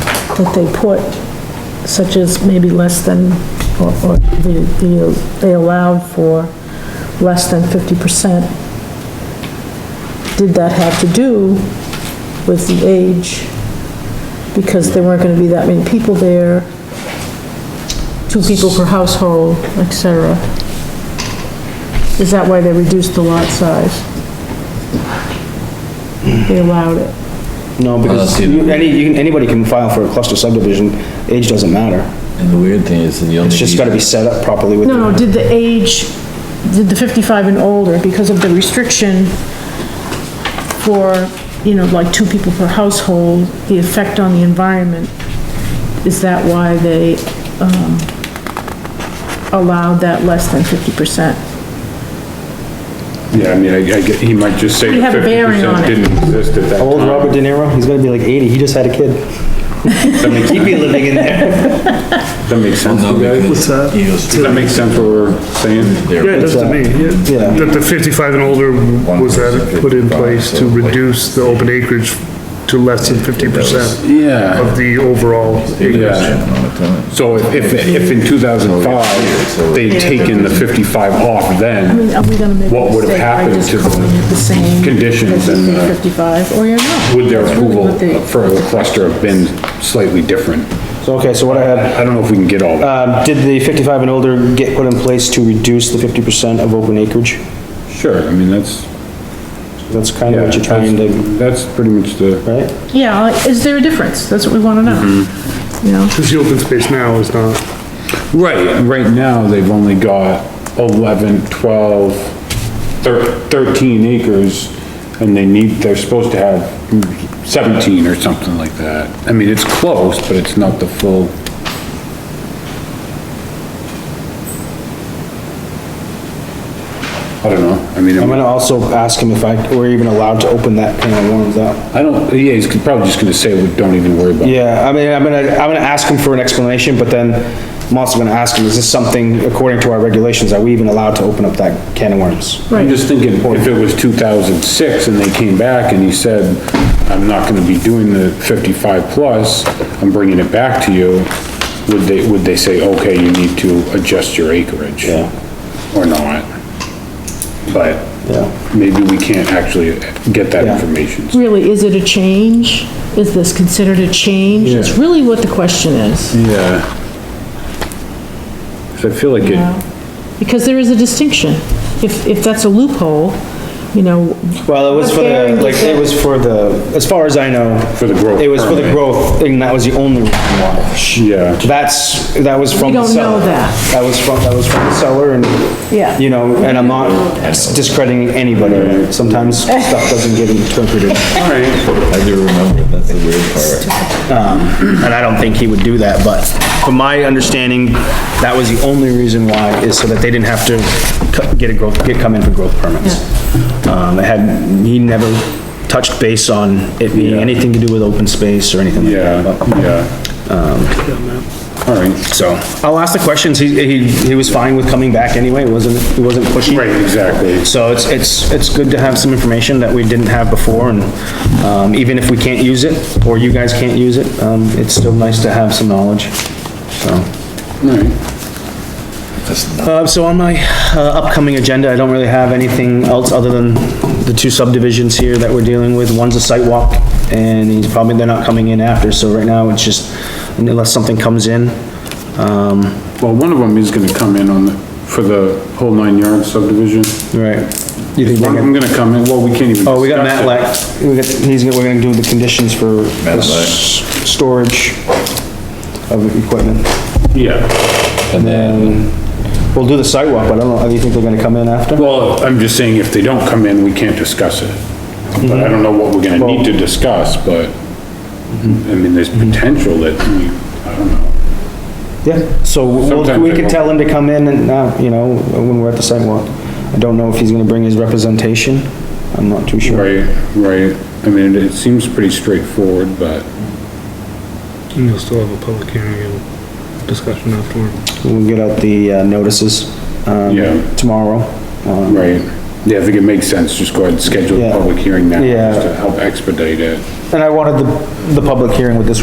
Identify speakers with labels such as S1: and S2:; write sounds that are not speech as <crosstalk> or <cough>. S1: that they put, such as maybe less than, or, or the, the, they allowed for less than fifty percent. Did that have to do with the age? Because there weren't gonna be that many people there, two people per household, et cetera. Is that why they reduced the lot size? They allowed it.
S2: No, because
S3: that's
S2: you- any, you can- anybody can file for a cluster subdivision, age doesn't matter.
S3: And the weird thing is, that you only
S2: It's just gotta be
S3: need,
S2: set up properly with.
S1: No, no, did the age, did the 55 and older, because of the restriction for, you know, like two people per household, the effect on the environment, is that why they um, allowed that less than 50%?
S4: Yeah, I mean, I, I get- he might just say
S1: We have a
S4: fifty
S1: bearing on
S4: percent
S1: it.
S4: didn't exist at that
S2: How old's
S4: time.
S2: Robert De Niro? He's gonna be like eighty, he just had a kid. He'd be living in there.
S4: That makes sense,
S3: no,
S4: you guys?
S3: Oh, because
S5: What's that?
S3: he goes
S4: Does that make sense what we're saying?
S3: there.
S5: Yeah, it does to
S2: that?
S5: me, yeah.
S2: Yeah.
S5: That the 55 and older was that put in place to reduce the open acreage to less than 50%
S4: Yeah,
S5: of the overall acreage.
S3: oh, Yeah.
S4: so if, if, if in two thousand five, they'd taken the fifty-five off
S1: I
S4: then,
S1: mean, are we gonna make
S4: What
S1: a
S4: would have
S1: mistake by
S4: happened
S1: just
S4: to the
S1: calling it the same?
S4: conditions and, uh,
S1: 55, or you're not?
S4: would their
S1: That's really
S4: approval
S1: what they-
S4: for the cluster have been slightly different?
S2: <laughs> So, okay, so what I had,
S4: I don't know if we can get all that.
S2: um, did the fifty-five and older get put in place to reduce the fifty percent of open acreage?
S4: Sure, I mean, that's,
S2: That's kind of
S4: yeah,
S2: what you're trying to,
S4: that's, that's pretty much the,
S2: right?
S1: Yeah, like, is there a difference? That's what we wanna know.
S4: Mm-hmm.
S1: You know,
S5: Because the open space now is not,
S4: right, right now, they've only got 11, 12, thir- 13 acres, and they need, they're supposed to have seventeen or something like that. I mean, it's close, but it's not the full. I don't know, I mean.
S2: I'm gonna also ask him if I, we're even allowed to open that can of worms up.
S4: I don't, yeah, he's probably just gonna say, "We don't even worry about it.
S2: Yeah, I mean, I'm gonna, I'm gonna ask him for an explanation, but then I'm also gonna ask him, is this something, according to our regulations, are we even allowed to open up that can of worms?
S4: I'm just thinking, if it was two thousand six and they came back and he said, I'm not gonna be doing the fifty-five plus, I'm bringing it back to you, would they, would they say, okay, you need to adjust your acreage?
S2: Yeah.
S4: Or not? But
S2: Yeah.
S4: maybe we can't actually get that
S2: Yeah.
S4: information.
S1: really, is it a change? Is this considered a change? It's
S4: Yeah.
S1: really what the question is,
S4: Yeah. 'Cause I feel like
S1: you
S4: it,
S1: know? Because there is a distinction. If, if that's a loophole, you know,
S2: Well, it was for the, like, it was for the, as far as I know.
S4: For the growth
S2: It was for the
S4: permit.
S2: growth, and that was the only reason why.
S4: yeah.
S2: That's, that was from the
S1: don't
S2: seller.
S1: know that.
S2: That was from, that was from the seller, and,
S1: Yeah.
S2: you know, and I'm not discrediting anybody. Sometimes stuff doesn't get interpreted.
S4: All right.
S3: I do remember, that's the weird part.
S2: And I don't think he would do that, but from my understanding, that was the only reason why, is so that they didn't have to co- get a growth, get come in for growth permits. Um, it had, he never touched base on it being anything to do with open space or anything like
S4: Yeah,
S2: that. but-
S4: yeah. All right.
S2: So, I'll ask the questions, he, he, he was fine with coming back anyway, wasn't, he wasn't pushing.
S4: Right, exactly.
S2: So it's, it's, it's good to have some information that we didn't have before, and, um, even if we can't use it, or you guys can't use it, um, it's still nice to have some knowledge, so.
S4: All right.
S2: Uh, so on my, uh, upcoming agenda, I don't really have anything else other than the two subdivisions here that we're dealing with. One's a site walk, and he's probably, they're not coming in after, so right now it's just, unless something comes in, um,
S4: Well, one of them is gonna come in on, the for the whole nine yard subdivision.
S2: right. You think
S4: One
S2: they're
S4: of
S2: gonna-
S4: them gonna come in, well, we can't even.
S2: Oh, we got
S4: discuss it.
S2: Matlack, we got, he's, gonna- we're gonna do the conditions for s- storage of equipment.
S4: Yeah,
S2: And then, we'll do the sidewalk, but I don't know, do you think they're gonna come in after?
S4: well, I'm just saying if they don't come in, we can't discuss it. But I don't know what we're gonna need to discuss, but,
S2: Mm-hmm.
S4: I mean, there's potential that, you- I don't know.
S2: Yeah, so we'll,
S4: Sometimes
S2: we
S4: they
S2: could
S4: won't.
S2: tell him to come in and, uh, you know, when we're at the sidewalk. I don't know if he's gonna bring his representation, I'm not too sure.
S4: Right, right, I mean, it seems pretty straightforward, but,
S5: and you'll still have a public hearing and discussion afterward.
S2: We'll get out the uh, notices,
S4: Yeah.
S2: um, tomorrow. Um,
S4: right. Yeah, I think it makes sense, just go ahead and schedule a
S2: Yeah.
S4: public hearing now,
S2: Yeah.
S4: just to help expedite it.
S2: And I wanted the, the public hearing with this